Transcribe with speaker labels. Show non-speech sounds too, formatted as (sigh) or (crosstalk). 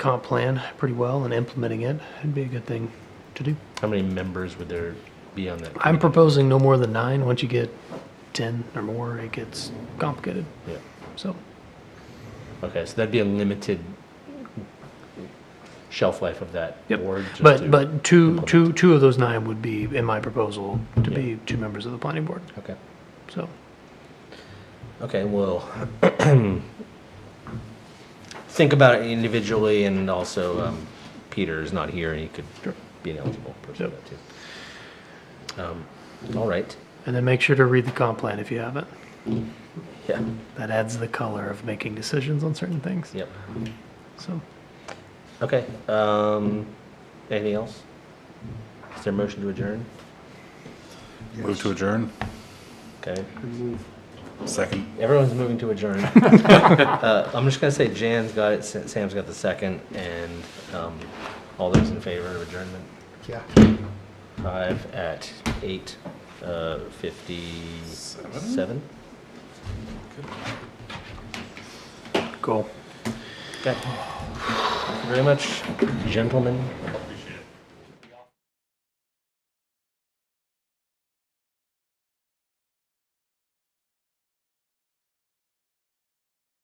Speaker 1: comp plan pretty well and implementing it, it'd be a good thing to do.
Speaker 2: How many members would there be on that?
Speaker 1: I'm proposing no more than nine. Once you get 10 or more, it gets complicated.
Speaker 2: Yeah.
Speaker 1: So,
Speaker 2: Okay, so that'd be a limited shelf life of that
Speaker 1: Yep.
Speaker 2: board. just
Speaker 1: but,
Speaker 2: to-
Speaker 1: but two,
Speaker 2: implement.
Speaker 1: two, two of those nine would be in my proposal to
Speaker 2: Yeah.
Speaker 1: be two members of the planning board.
Speaker 2: Okay.
Speaker 1: So,
Speaker 2: Okay, well, (clears throat) think about it individually, and also um, Peter is not here, and he could
Speaker 1: Sure.
Speaker 2: be an eligible person for
Speaker 1: Yep.
Speaker 2: that too. Um, All right,
Speaker 1: and then make sure to read the comp plan if you haven't.
Speaker 2: yeah,
Speaker 1: That adds the color of making decisions on certain things.
Speaker 2: yep,
Speaker 1: So,
Speaker 2: okay. um, Anything else? Is there a motion to adjourn?
Speaker 3: Move to adjourn.
Speaker 2: Okay,
Speaker 3: Second.
Speaker 2: everyone's moving to adjourn. Uh, I'm just gonna say Jan's got it, Sa- Sam's got the second, and um, all those in favor of adjournment?
Speaker 4: Yeah.
Speaker 2: Five at eight, uh, fifty-seven?
Speaker 1: cool.
Speaker 2: Okay. Thank you very much, gentlemen.